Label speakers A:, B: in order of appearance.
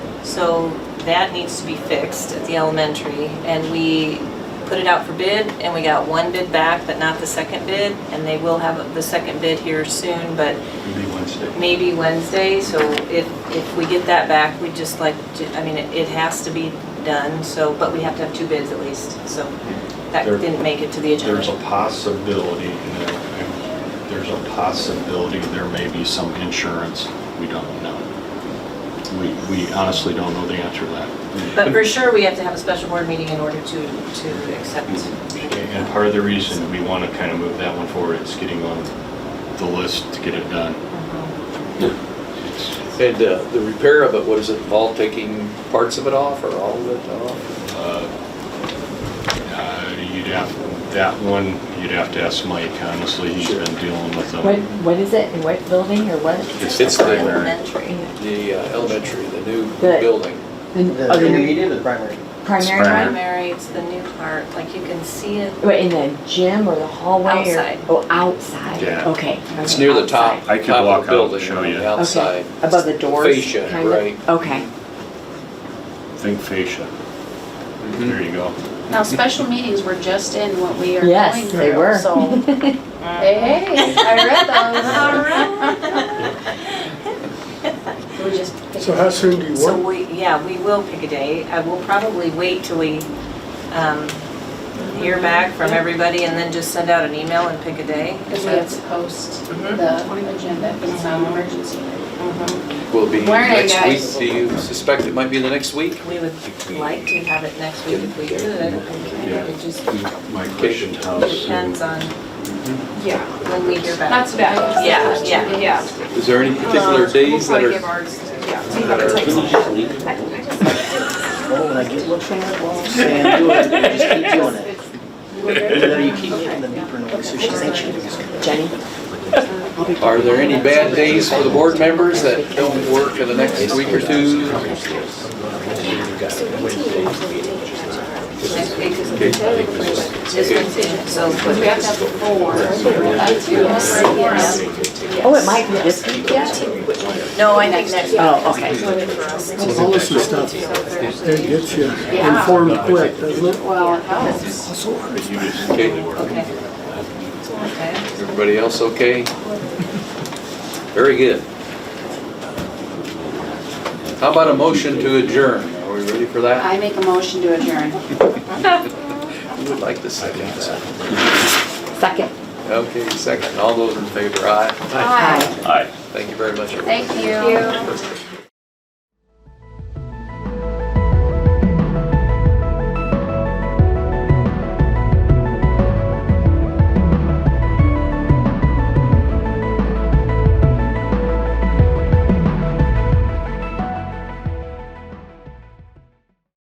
A: So that needs to be fixed at the elementary. And we put it out for bid and we got one bid back, but not the second bid. And they will have the second bid here soon, but
B: Maybe Wednesday.
A: maybe Wednesday. So if, if we get that back, we'd just like, to I mean, it it has to be done, so, but we have to have two bids at least, so that
B: There-
A: didn't make it to the
B: There's a
A: agenda.
B: possibility, and there- and there's a possibility there may be some insurance. We don't know. We, we honestly don't know the answer to that.
A: But for sure, we have to have a special board meeting in order to, to accept.
B: And part of the reason we want to kind of move that one forward is getting on the list to get it done. It's,
C: And uh, the repair of it, what does it involve, taking parts of it off or all of it off?
B: uh, uh, You'd have, that one, you'd have to ask Mike, honestly, he's been dealing with um,
D: What,
B: them.
D: what is it, in what building or what?
C: It's
B: the
C: the-
B: primary.
C: The uh, elementary, the new
D: The-
C: building.
D: In-
E: The
D: oh, the new
E: intermediate or the primary?
D: Primary
B: Primary.
D: one?
A: Primary, it's the new part, like you can see it.
D: Wait, in the gym or the hallway? or-
A: Outside.
D: Oh, outside,
B: Yeah.
D: okay.
C: It's
D: okay,
C: near the top,
B: I
D: outside.
C: top
B: could
C: of
B: walk out
C: the
B: and
C: building,
B: show
C: on
B: you.
C: the
B: Okay.
C: outside.
D: Okay. Above the doors?
C: fascia,
D: kind of?
C: right.
D: Okay.
B: Think fascia.
C: Mm-hmm.
B: There you go.
F: Now, special meetings were just in what we are
D: Yes,
F: going through.
D: they were.
F: So, hey, hey, I read those. We just.
G: So how soon do you
A: So
G: want?
A: we, yeah, we will pick a day. I will probably wait till we um, hear back from everybody and then just send out an email and pick a day.
F: Because we have to post the agenda, if it's not an emergency.
C: Will be
F: Where are they,
C: next
F: guys?
C: week. Do you suspect it might be the next week?
A: We would like to have it next week if we could.
B: Yeah.
A: It just
B: My question, Tom, is-
A: depends on
H: Yeah,
A: when we hear back.
H: that's bad.
A: Yeah, yeah.
H: Yeah.
C: Is there any particular
H: Uh,
C: days that
H: We'll probably give
C: are,
H: ours, yeah, see what it takes.
E: Oh, when I get looks from that wall, saying, do it, you just keep doing it. The better you keep getting the beeper noise, so she's anxious.
D: Jenny?
C: are there any bad days for the board members that don't work in the next week or two?
A: This one's in, so
F: Because we have to have four. That's two. Yes.
D: Oh, it might be this week yet?
A: No, I think next week.
D: Oh, okay.
G: All this is stuff, it gets you informed quick, doesn't it?
F: Well, it helps.
C: Okay,
A: Okay. Okay.
C: everybody else okay? Very good. How about a motion to adjourn? Are we ready for that?
F: I make a motion to adjourn.
C: Who would like to second that?
D: Second.
C: Okay, second. All those in favor, aye.
D: Aye.
C: Thank you very much, everyone.
F: Thank you.